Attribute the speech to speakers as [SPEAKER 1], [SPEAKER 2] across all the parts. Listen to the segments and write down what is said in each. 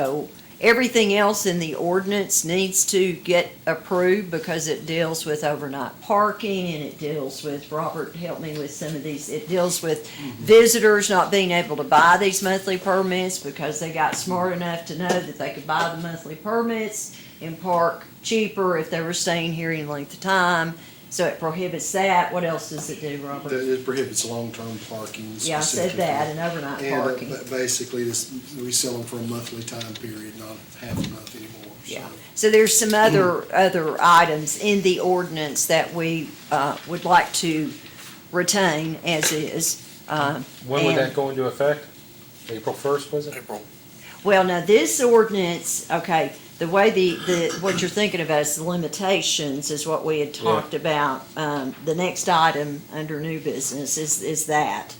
[SPEAKER 1] So everything else in the ordinance needs to get approved because it deals with overnight parking and it deals with, Robert helped me with some of these, it deals with
[SPEAKER 2] Mm-hmm.
[SPEAKER 1] visitors not being able to buy these monthly permits because they got smart enough to know that they could buy the monthly permits and park cheaper if they were staying here any length of time. So it prohibits that. What else does it do, Robert?
[SPEAKER 2] That it prohibits long-term parking.
[SPEAKER 1] Yeah, I said that, and overnight
[SPEAKER 2] specifically. And, uh,
[SPEAKER 1] parking.
[SPEAKER 2] ba- basically, this, we sell them for a monthly time period, not half a month anymore. so.
[SPEAKER 1] Yeah, so there's some other, other items in the ordinance that we uh, would like to retain as is. Uh,
[SPEAKER 3] When would
[SPEAKER 1] and-
[SPEAKER 3] that go into effect? April first, was it? April.
[SPEAKER 1] Well, now, this ordinance, okay, the way the, the, what you're thinking about is the limitations is what we had
[SPEAKER 3] Yeah.
[SPEAKER 1] talked about. Um, The next item under new business is, is that.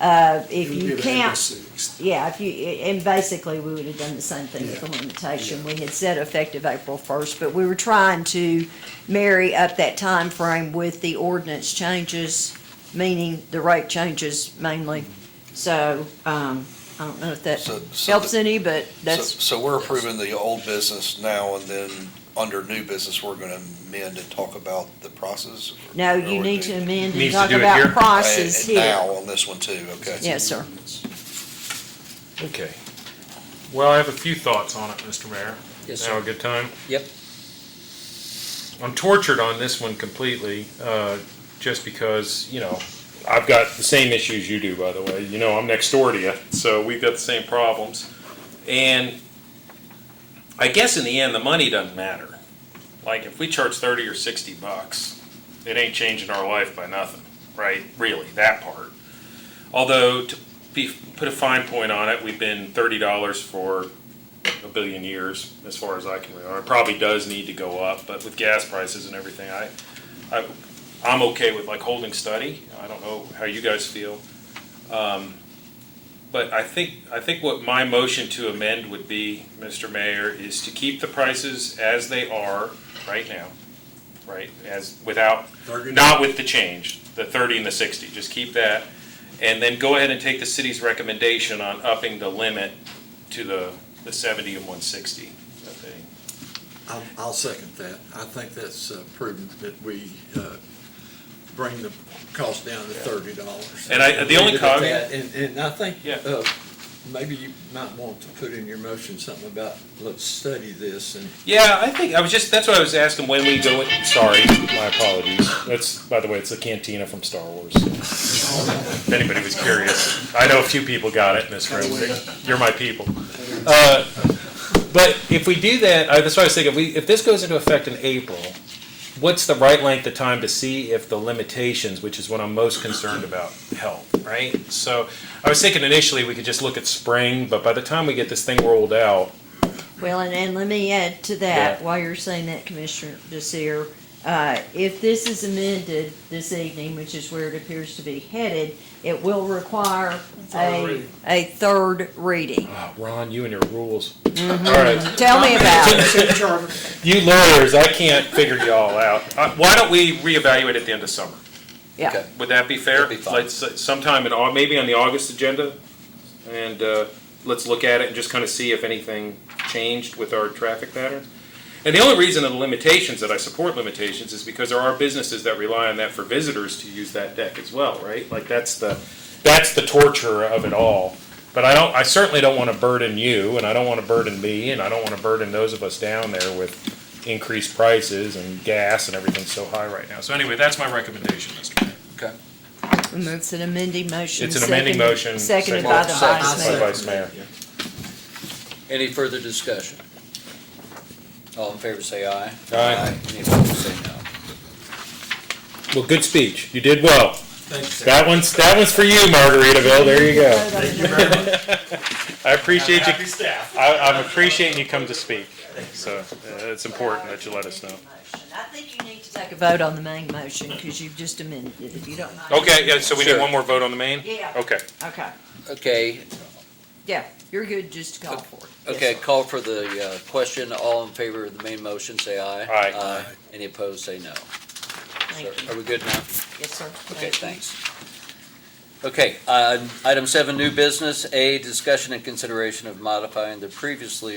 [SPEAKER 1] Uh, If
[SPEAKER 2] It would be
[SPEAKER 1] you
[SPEAKER 2] about April
[SPEAKER 1] can't,
[SPEAKER 2] 6th.
[SPEAKER 1] Yeah, if you, and basically, we would have done the same thing with the
[SPEAKER 2] Yeah.
[SPEAKER 1] limitation. We had said effective April first, but we were trying to marry up that time frame with the ordinance changes, meaning the rate changes mainly. So, um, I don't know if that
[SPEAKER 4] So- so
[SPEAKER 1] helps
[SPEAKER 4] the-
[SPEAKER 1] any, but
[SPEAKER 4] So,
[SPEAKER 1] that's,
[SPEAKER 4] so we're approving the old business now, and then under new business, we're gonna amend and talk about the process? or-
[SPEAKER 1] no,
[SPEAKER 4] or
[SPEAKER 1] you
[SPEAKER 4] we
[SPEAKER 1] need
[SPEAKER 4] do-
[SPEAKER 1] to amend and
[SPEAKER 3] Needs to
[SPEAKER 1] talk
[SPEAKER 3] do it
[SPEAKER 1] about
[SPEAKER 3] here?
[SPEAKER 1] prices
[SPEAKER 4] And- and
[SPEAKER 1] here.
[SPEAKER 4] Now on this one too, okay?
[SPEAKER 1] Yes, sir.
[SPEAKER 3] Okay. Well, I have a few thoughts on it, Mr. Mayor.
[SPEAKER 5] Yes,
[SPEAKER 3] Now a
[SPEAKER 5] sir.
[SPEAKER 3] good time?
[SPEAKER 5] Yep.
[SPEAKER 3] I'm tortured on this one completely, uh, just because, you know, I've got the same issues you do, by the way. You know, I'm next door to you, so we've got the same problems. And I guess in the end, the money doesn't matter. Like, if we charge thirty or sixty bucks, it ain't changing our life by nothing, right? Really, that part. Although, to be, put a fine point on it, we've been thirty dollars for a billion years, as far as I can remember. It probably does need to go up, but with gas prices and everything, I, I, I'm okay with like holding steady. I don't know how you guys feel. Um, But I think, I think what my motion to amend would be, Mr. Mayor, is to keep the prices as they are right now, right? As, without, not with the change, the thirty and the sixty, just keep that. And then go ahead and take the city's recommendation on upping the limit to the, the seventy and one sixty.
[SPEAKER 6] I'll, I'll second that. I think that's uh, prudent that we uh, bring the cost down to thirty dollars.
[SPEAKER 3] And I- the only cog-
[SPEAKER 6] And, and I think,
[SPEAKER 3] Yeah.
[SPEAKER 6] uh, maybe you might want to put in your motion something about, let's study this and
[SPEAKER 3] Yeah, I think, I was just, that's what I was asking when we go, in- sorry, my apologies. That's, by the way, it's the cantina from Star Wars. If anybody was curious, I know a few people got it, Miss Rosen, you're my people. Uh, But if we do that, I- that's what I was thinking, if we, if this goes into effect in April, what's the right length of time to see if the limitations, which is what I'm most concerned about, help, right? So I was thinking initially we could just look at spring, but by the time we get this thing rolled out,
[SPEAKER 1] Well, and, and let me add to that,
[SPEAKER 3] Yeah.
[SPEAKER 1] while you're saying that, Commissioner Desir, uh, if this is amended this evening, which is where it appears to be headed, it will require a, a third reading.
[SPEAKER 3] Ah, Ron, you and your rules. All right,
[SPEAKER 1] Tell me about it.
[SPEAKER 3] you lawyers, I can't figure y'all out. Uh, Why don't we reevaluate at the end of summer?
[SPEAKER 1] Yeah,
[SPEAKER 5] Okay.
[SPEAKER 3] Would that be fair?
[SPEAKER 5] That'd be fine.
[SPEAKER 3] Let's, uh, sometime in, Au- maybe on the August agenda, and uh, let's look at it and just kind of see if anything changed with our traffic patterns. And the only reason of the limitations, that I support limitations, is because there are businesses that rely on that for visitors to use that deck as well, right? Like, that's the, that's the torture of it all. But I don't, I certainly don't want to burden you, and I don't want to burden me, and I don't want to burden those of us down there with increased prices and gas and everything's so high right now. So anyway, that's my recommendation, Mr. Mayor.
[SPEAKER 1] and that's an amending motion.
[SPEAKER 3] It's an amending
[SPEAKER 1] seconded-
[SPEAKER 3] motion,
[SPEAKER 1] Seconded
[SPEAKER 3] seconded-
[SPEAKER 1] by the
[SPEAKER 5] Seconded.
[SPEAKER 1] vice
[SPEAKER 3] By
[SPEAKER 1] mayor.
[SPEAKER 3] Vice Mayor.
[SPEAKER 5] Any further discussion? All in favor, say aye.
[SPEAKER 3] Aye.
[SPEAKER 5] Any opposed, say no.
[SPEAKER 3] Well, good speech. You did well. That one's, that one's for you, Margaritaville. There you go. I appreciate you,
[SPEAKER 7] staff.
[SPEAKER 3] I, I'm appreciating you come to speak. So uh, it's important that you let us know.
[SPEAKER 1] I think you need to take a vote on the main motion, because you've just amended it, if you don't mind.
[SPEAKER 3] Okay, yeah, so we need
[SPEAKER 5] Sure.
[SPEAKER 3] one more vote on the main?
[SPEAKER 1] Yeah.
[SPEAKER 3] Okay.
[SPEAKER 1] Okay,
[SPEAKER 5] Okay,
[SPEAKER 1] yeah, you're good, just call for it. Yes,
[SPEAKER 5] okay,
[SPEAKER 1] sir.
[SPEAKER 5] call for the uh, question. All in favor of the main motion, say aye.
[SPEAKER 3] Aye.
[SPEAKER 5] Any opposed, say no.
[SPEAKER 1] Thank you.
[SPEAKER 5] Are we good now?
[SPEAKER 1] Yes, sir.
[SPEAKER 5] Okay,
[SPEAKER 1] Thank you.
[SPEAKER 5] thanks. Okay, uh, item seven, new business. A, discussion and consideration of modifying the previously